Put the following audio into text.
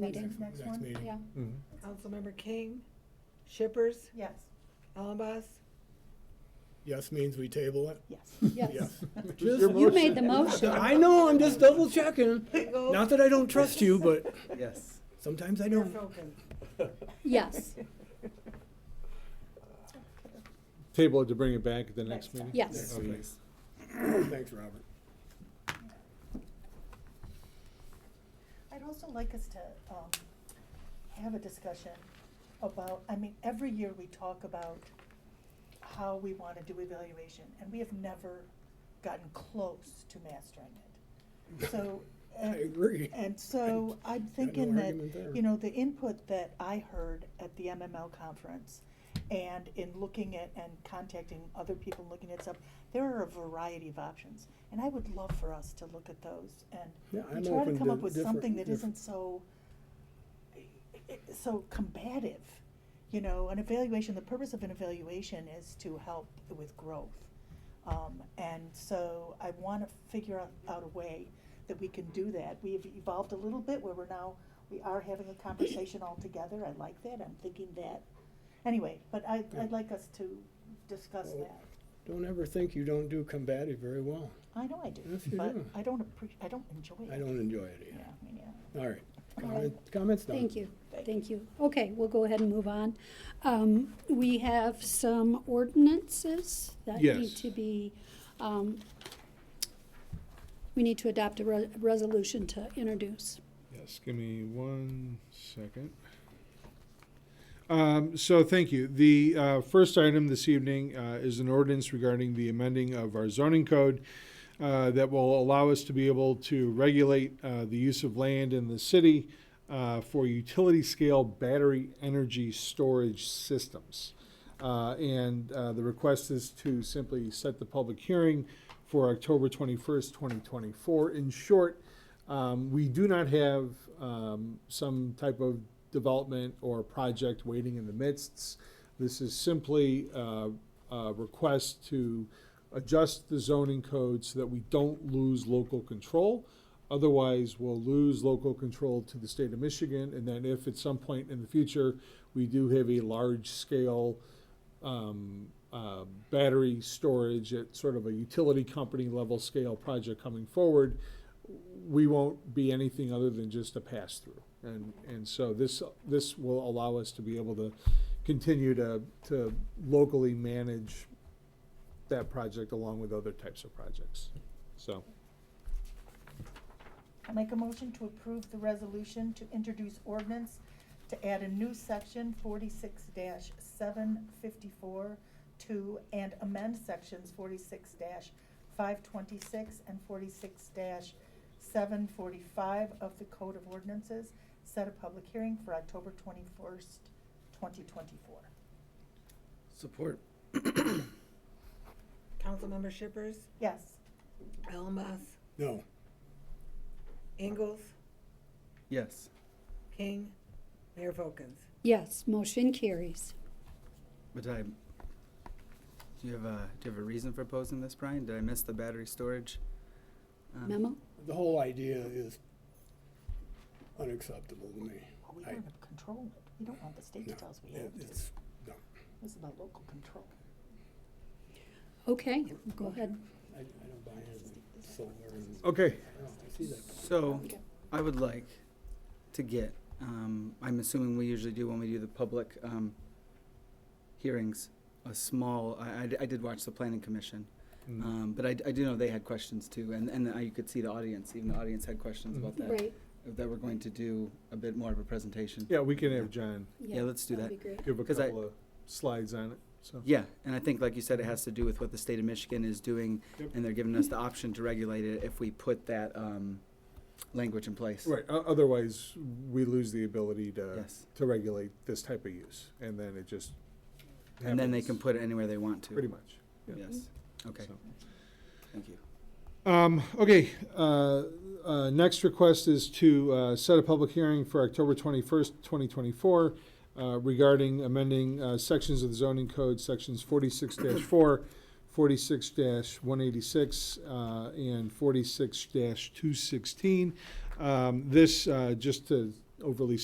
meeting. Next one? meeting. Yeah, Councilmember King, Shippers, Yes. Alabas, Yes means we table it? Yes. yes. Just- your You made the motion. I know, I'm just double checking. Eagle, Not that I don't trust you, but Yes. sometimes I don't. Norfolkin. Yes, Table it to bring it back at the next Next time. meeting? yes. Okay. Thanks, Robert. I'd also like us to um, have a discussion about, I mean, every year we talk about how we want to do evaluation, and we have never gotten close to mastering it. So. and- I agree. And so I'm no thinking that, argument there. you know, the input that I heard at the MML conference and in looking at and contacting other people, looking at stuff, there are a variety of options. And I would love for us to look at those and Yeah, and I'm try to open come to up with different- something that diff- isn't so, i- i- so combative. You know, an evaluation, the purpose of an evaluation is to help with growth. Um, and so I wanna figure out, out a way that we can do that. We've evolved a little bit where we're now, we are having a conversation all together. I like that. I'm thinking that. Anyway, but I, Yeah. I'd like us to discuss Well- that. Don't ever think you don't do combative very well. I know I do, Yes, you but do. I don't appre- I don't enjoy it. I don't enjoy it Yeah, either. I mean, yeah. All right, Comment- comments done. Thank you, Thank thank you. Okay, we'll go ahead and move on. Um, we have some ordinances that need Yes. to be, um, we need to adopt a re- resolution to introduce. Yes, give me one second. Um, so thank you. The uh, first item this evening uh, is an ordinance regarding the amending of our zoning code uh, that will allow us to be able to regulate uh, the use of land in the city uh, for utility scale battery energy storage systems. Uh, and uh, the request is to simply set the public hearing for October 21st, 2024. In short, um, we do not have um, some type of development or project waiting in the midst. This is simply uh, a request to adjust the zoning code so that we don't lose local control. Otherwise, we'll lose local control to the state of Michigan, and then if at some point in the future, we do have a large-scale um, uh, battery storage at sort of a utility company level scale project coming forward, we won't be anything other than just a pass-through. And, and so this, this will allow us to be able to continue to, to locally manage that project along with other types of projects. So, I make a motion to approve the resolution to introduce ordinance to add a new section forty-six seven fifty-four to and amend sections forty-six five twenty-six and forty-six seven forty-five of the Code of Ordinances. Set a public hearing for October twenty-first, twenty twenty-four. Support. Councilmember Shippers, Yes, Alabas, No, Ingalls, Yes. King, Mayor Folkins. Yes, motion carries. But I, do you have a, do you have a reason for posing this, Brian? Did I miss the battery storage? um, Memo? the whole idea is unacceptable to me. Well, we I- want to control it. We don't want the state to No, tell us we have it- to. it's, no. This is about local control. Okay, go ahead. I, I don't buy anything solar and, okay, I don't know, I see that. So, Okay. I would like to get, um, I'm assuming we usually do when we do the public, um, hearings, a small, I, I d- I did watch the planning commission. Mm-hmm. Mm. Um, but I, d- I do know they had questions too, and, and I could see the audience, even the audience had questions about that. Right, That we're going to do a bit more of a presentation. yeah, we can have John yeah. let's do That'd be great. give a 'Cause I- couple of slides on it, so. Yeah, and I think, like you said, it has to do with what the state of Michigan is doing, Yep. and they're giving us the option to regulate it if we put that um, language in place. Right, o- otherwise, we lose the ability to, Yes, to regulate this type of use, and then it just. and then they happens can put it anywhere they want to. Pretty much, yeah. Mm-hmm. Yes. Okay. so. Thank you. Um, okay, uh, uh, next request is to, uh, set a public hearing for October twenty-first, twenty twenty-four, uh, regarding amending, uh, sections of the zoning code, sections forty-six 4 46 one eighty-six, uh, and forty-six two sixteen. Um, this, uh, just to overly